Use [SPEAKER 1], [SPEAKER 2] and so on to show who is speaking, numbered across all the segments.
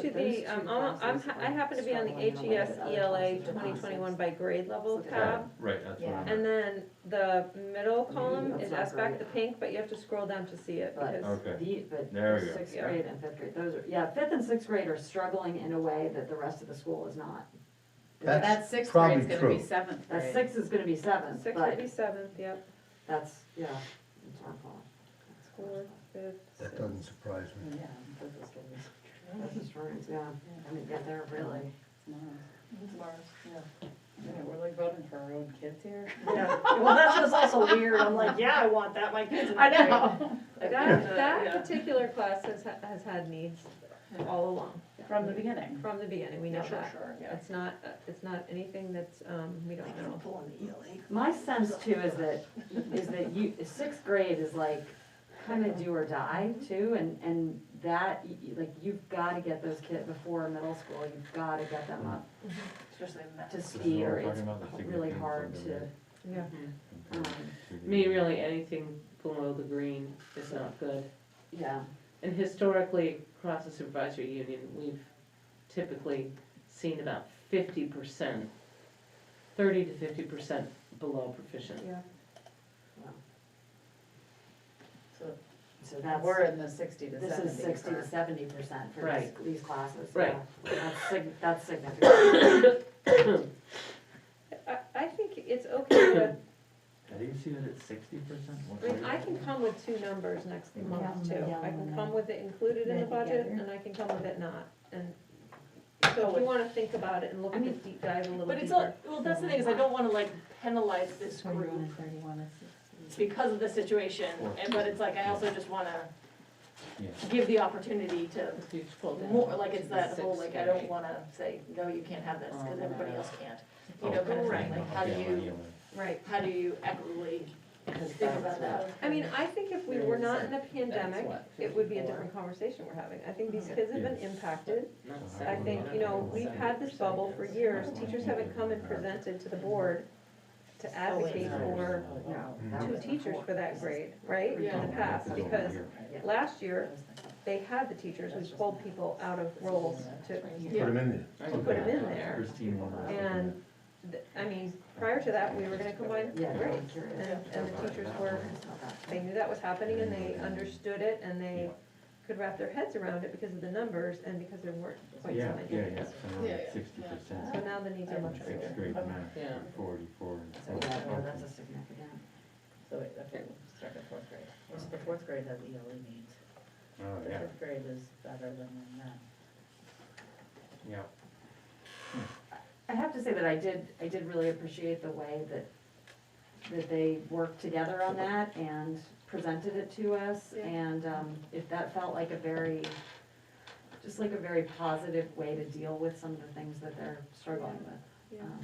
[SPEAKER 1] to the, um, I'm- I'm, ha- I happen to be on the E HES ELA twenty twenty-one by grade level tab.
[SPEAKER 2] Right, that's what I'm.
[SPEAKER 1] And then the middle column is S back to pink, but you have to scroll down to see it because,
[SPEAKER 2] Okay.
[SPEAKER 3] The, but
[SPEAKER 2] There we go.
[SPEAKER 3] sixth
[SPEAKER 1] Yeah.
[SPEAKER 3] grade and fifth grade, those are, yeah, fifth and sixth grade are struggling in a way that the rest of the school is not.
[SPEAKER 4] That's
[SPEAKER 5] That sixth
[SPEAKER 4] probably
[SPEAKER 5] grade's gonna be
[SPEAKER 4] true.
[SPEAKER 5] seventh
[SPEAKER 3] That
[SPEAKER 5] grade.
[SPEAKER 3] sixth is gonna be seventh,
[SPEAKER 1] sixth would
[SPEAKER 3] but
[SPEAKER 1] be seventh, yep,
[SPEAKER 3] that's, yeah, it's our fault. That's our
[SPEAKER 1] fourth,
[SPEAKER 3] fault.
[SPEAKER 1] fifth,
[SPEAKER 4] That
[SPEAKER 1] sixth.
[SPEAKER 4] doesn't surprise me.
[SPEAKER 5] Yeah, fifth is gonna be
[SPEAKER 3] That's just right, yeah, I mean, yeah, they're really.
[SPEAKER 5] Mars, yeah. We're like voting for our own kids here.
[SPEAKER 6] Yeah, well, that's just also weird, I'm like, yeah, I want that, my kids. in
[SPEAKER 5] I
[SPEAKER 6] that grade.
[SPEAKER 5] know.
[SPEAKER 1] That,
[SPEAKER 5] Yeah.
[SPEAKER 1] that particular class has, ha- has had needs all along,
[SPEAKER 5] From the beginning.
[SPEAKER 1] from the beginning, we know
[SPEAKER 5] Sure,
[SPEAKER 1] that.
[SPEAKER 5] sure, yeah.
[SPEAKER 1] It's not, uh, it's not anything that's, um, we don't know.
[SPEAKER 3] My sense too is that, is that you, sixth grade is like kind of do or die too, and, and that, y- y- like, you've got to get those kids before middle school, you've got to get them up
[SPEAKER 5] Especially
[SPEAKER 3] to
[SPEAKER 2] This is
[SPEAKER 3] ski,
[SPEAKER 2] what we're
[SPEAKER 3] or it's
[SPEAKER 2] talking about, the
[SPEAKER 3] really
[SPEAKER 2] significance
[SPEAKER 3] hard
[SPEAKER 2] of
[SPEAKER 3] to,
[SPEAKER 2] the-
[SPEAKER 1] Yeah.
[SPEAKER 3] um,
[SPEAKER 2] to
[SPEAKER 7] mean,
[SPEAKER 2] the-
[SPEAKER 7] really, anything below the green is not good.
[SPEAKER 3] yeah.
[SPEAKER 7] And historically, across the supervisory union, we've typically seen about fifty percent, thirty to fifty percent below proficient.
[SPEAKER 1] Yeah.
[SPEAKER 5] So
[SPEAKER 3] So that's,
[SPEAKER 5] we're in the sixty to
[SPEAKER 3] this is
[SPEAKER 5] seventy
[SPEAKER 3] sixty to
[SPEAKER 5] for
[SPEAKER 3] seventy percent for these,
[SPEAKER 7] Right.
[SPEAKER 3] these classes.
[SPEAKER 7] Right.
[SPEAKER 3] yeah. That's sig- that's significant.
[SPEAKER 1] I, I think it's okay with
[SPEAKER 2] Did you see that it's sixty percent?
[SPEAKER 1] I mean, I can come with two numbers next month too. I can come with it included in the
[SPEAKER 6] Maybe
[SPEAKER 1] budget
[SPEAKER 6] together.
[SPEAKER 1] and I can come with it not. And so if you wanna think about it and look at the deep dive a little
[SPEAKER 6] But it's all,
[SPEAKER 1] deeper.
[SPEAKER 6] well, that's the thing, is I don't wanna like penalize this group because of the situation, and, but it's like, I also just wanna
[SPEAKER 2] Yeah.
[SPEAKER 6] give the opportunity to
[SPEAKER 7] If you scroll down
[SPEAKER 6] more, like,
[SPEAKER 7] to
[SPEAKER 6] it's
[SPEAKER 7] the
[SPEAKER 6] that whole,
[SPEAKER 7] sixth
[SPEAKER 6] like, I don't
[SPEAKER 7] grade.
[SPEAKER 6] wanna say, no, you can't have this, cause
[SPEAKER 7] Oh,
[SPEAKER 6] everybody
[SPEAKER 7] no.
[SPEAKER 6] else can't.
[SPEAKER 2] Oh,
[SPEAKER 6] You know, kind of
[SPEAKER 1] Right.
[SPEAKER 6] thing, like, how do you,
[SPEAKER 1] Right.
[SPEAKER 6] how do you equitably
[SPEAKER 7] Because
[SPEAKER 6] think
[SPEAKER 7] that's
[SPEAKER 6] about that?
[SPEAKER 1] I mean, I think if we were not in a pandemic,
[SPEAKER 7] what,
[SPEAKER 1] it would be a
[SPEAKER 7] 54?
[SPEAKER 1] different conversation we're having. I think these kids have been impacted.
[SPEAKER 7] Not
[SPEAKER 2] I
[SPEAKER 1] I
[SPEAKER 7] 70,
[SPEAKER 1] think, you know, we've had this bubble for
[SPEAKER 7] 70%.
[SPEAKER 1] years. Teachers haven't come and presented to the board
[SPEAKER 5] Oh,
[SPEAKER 1] to advocate for two teachers for that grade, right? In the past, because last year, they had the teachers, we pulled people out of roles to,
[SPEAKER 6] Yeah.
[SPEAKER 4] Put them in there.
[SPEAKER 1] to put them in there.
[SPEAKER 2] Christine wanted to-
[SPEAKER 1] And, th- I mean, prior to that, we were gonna combine
[SPEAKER 3] Yeah, no, I'm
[SPEAKER 1] grades.
[SPEAKER 3] curious.
[SPEAKER 1] And, and the teachers were,
[SPEAKER 3] about that.
[SPEAKER 1] they knew that was happening and they understood it and they could wrap their heads around it because of the numbers and because there weren't quite so
[SPEAKER 2] Yeah,
[SPEAKER 1] many.
[SPEAKER 2] yeah, yeah,
[SPEAKER 5] Yeah, yeah.
[SPEAKER 2] sixty
[SPEAKER 1] So
[SPEAKER 2] percent,
[SPEAKER 1] now the needs are much greater.
[SPEAKER 2] sixth grade math,
[SPEAKER 7] Yeah.
[SPEAKER 2] forty-four.
[SPEAKER 5] So,
[SPEAKER 3] Yeah, no, that's a significant.
[SPEAKER 5] So wait, okay, we'll start at fourth grade. So the fourth grade has ELE needs.
[SPEAKER 2] Oh,
[SPEAKER 5] The
[SPEAKER 2] yeah,
[SPEAKER 5] fifth grade is better than that.
[SPEAKER 2] yeah.
[SPEAKER 3] I have to say that I did, I did really appreciate the way that, that they worked together on that and presented it to us.
[SPEAKER 1] Yeah.
[SPEAKER 3] And um, if that felt like a very, just like a very positive way to deal with some of the things that they're struggling with.
[SPEAKER 1] Yeah.
[SPEAKER 3] Um,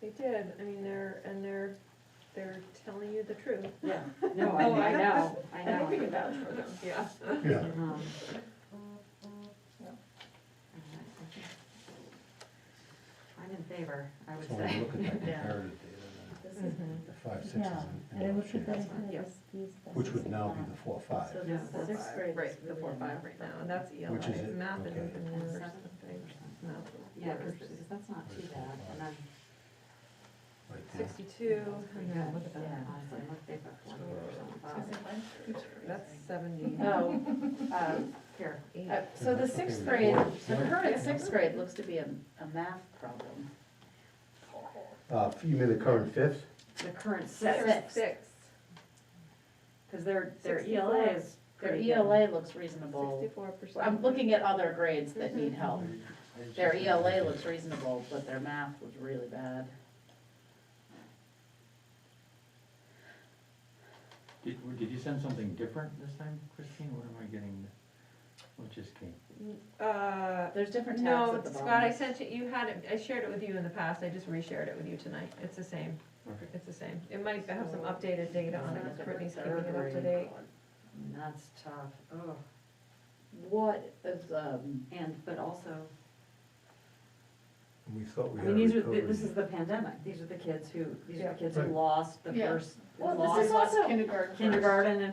[SPEAKER 1] They did, I mean, they're, and they're, they're telling you the truth.
[SPEAKER 3] Yeah, no, I
[SPEAKER 5] Oh,
[SPEAKER 3] I
[SPEAKER 5] I-
[SPEAKER 3] know, I
[SPEAKER 5] I think we
[SPEAKER 3] know.
[SPEAKER 5] can vouch for them.
[SPEAKER 1] Yeah.
[SPEAKER 4] Yeah.
[SPEAKER 3] Um,
[SPEAKER 5] Yeah.
[SPEAKER 3] I'm in favor, I would
[SPEAKER 4] So when you
[SPEAKER 3] say.
[SPEAKER 4] look at that
[SPEAKER 5] Yeah.
[SPEAKER 4] comparative data,
[SPEAKER 5] This
[SPEAKER 1] Mhm.
[SPEAKER 5] is
[SPEAKER 4] the five, Mm-hmm. sixes,
[SPEAKER 8] Yeah,
[SPEAKER 4] and-
[SPEAKER 8] and it
[SPEAKER 4] and
[SPEAKER 8] would be
[SPEAKER 4] those
[SPEAKER 8] better
[SPEAKER 4] shapes,
[SPEAKER 8] for
[SPEAKER 1] Yeah.
[SPEAKER 8] the skis. than
[SPEAKER 4] which would
[SPEAKER 8] the
[SPEAKER 4] now be
[SPEAKER 8] not.
[SPEAKER 4] the four, five.
[SPEAKER 5] So
[SPEAKER 3] Yeah,
[SPEAKER 5] the
[SPEAKER 3] four,
[SPEAKER 5] sixth
[SPEAKER 3] five.
[SPEAKER 5] grade. is
[SPEAKER 1] Right, the
[SPEAKER 5] really
[SPEAKER 1] four,
[SPEAKER 5] not-
[SPEAKER 1] five right now, and that's ELA,
[SPEAKER 4] Which is it?
[SPEAKER 1] math and
[SPEAKER 4] Okay.
[SPEAKER 1] English or something. No.
[SPEAKER 3] Yeah, because that's not too bad, and then
[SPEAKER 4] Right there.
[SPEAKER 1] Sixty-two, and
[SPEAKER 3] Yeah,
[SPEAKER 1] then
[SPEAKER 3] look at that,
[SPEAKER 5] Yeah.
[SPEAKER 3] honestly, look, they've got forty percent of
[SPEAKER 5] I was
[SPEAKER 3] us.
[SPEAKER 5] gonna say, mine's pretty
[SPEAKER 1] that's
[SPEAKER 5] crazy.
[SPEAKER 1] seventy-eight.
[SPEAKER 5] Oh,
[SPEAKER 3] Um, Here,
[SPEAKER 5] Uh, So the sixth grade, the current sixth grade looks to be a, a math problem.
[SPEAKER 4] Uh, you mean the current fifth?
[SPEAKER 3] the current
[SPEAKER 5] Six.
[SPEAKER 3] six,
[SPEAKER 1] Six.
[SPEAKER 3] because their, their
[SPEAKER 6] E
[SPEAKER 1] Sixty-four.
[SPEAKER 3] ELA E is
[SPEAKER 5] Their
[SPEAKER 3] pretty good.
[SPEAKER 5] ELA looks reasonable.
[SPEAKER 1] Sixty-four percent.
[SPEAKER 5] I'm looking at other grades that need help.
[SPEAKER 2] Mm-hmm.
[SPEAKER 5] Their ELA looks reasonable, but their math was really bad.
[SPEAKER 2] Did, did you send something different this time, Christine? What am I getting? What just came?
[SPEAKER 1] Uh,
[SPEAKER 5] There's different tabs
[SPEAKER 1] no,
[SPEAKER 5] at the bottom.
[SPEAKER 1] Scott, I sent you, you had it, I shared it with you in the past, I just reshared it with you tonight, it's the same,
[SPEAKER 2] Okay.
[SPEAKER 1] it's the same. It might have some updated data on it, 'cause Brittany's keeping it up to date.
[SPEAKER 3] And That's tough, oh,
[SPEAKER 5] What is, um,
[SPEAKER 3] and, but also,
[SPEAKER 4] and we thought we
[SPEAKER 7] I
[SPEAKER 4] had
[SPEAKER 7] mean, these are, th-
[SPEAKER 4] recovered.
[SPEAKER 7] this is the pandemic, these are the kids who, these are the kids
[SPEAKER 4] Yeah.
[SPEAKER 7] who
[SPEAKER 4] Right.
[SPEAKER 7] lost the
[SPEAKER 5] Yeah.
[SPEAKER 7] first,
[SPEAKER 5] Well, this
[SPEAKER 7] lost
[SPEAKER 5] is also-
[SPEAKER 3] Kindergarten. first.
[SPEAKER 7] kindergarten and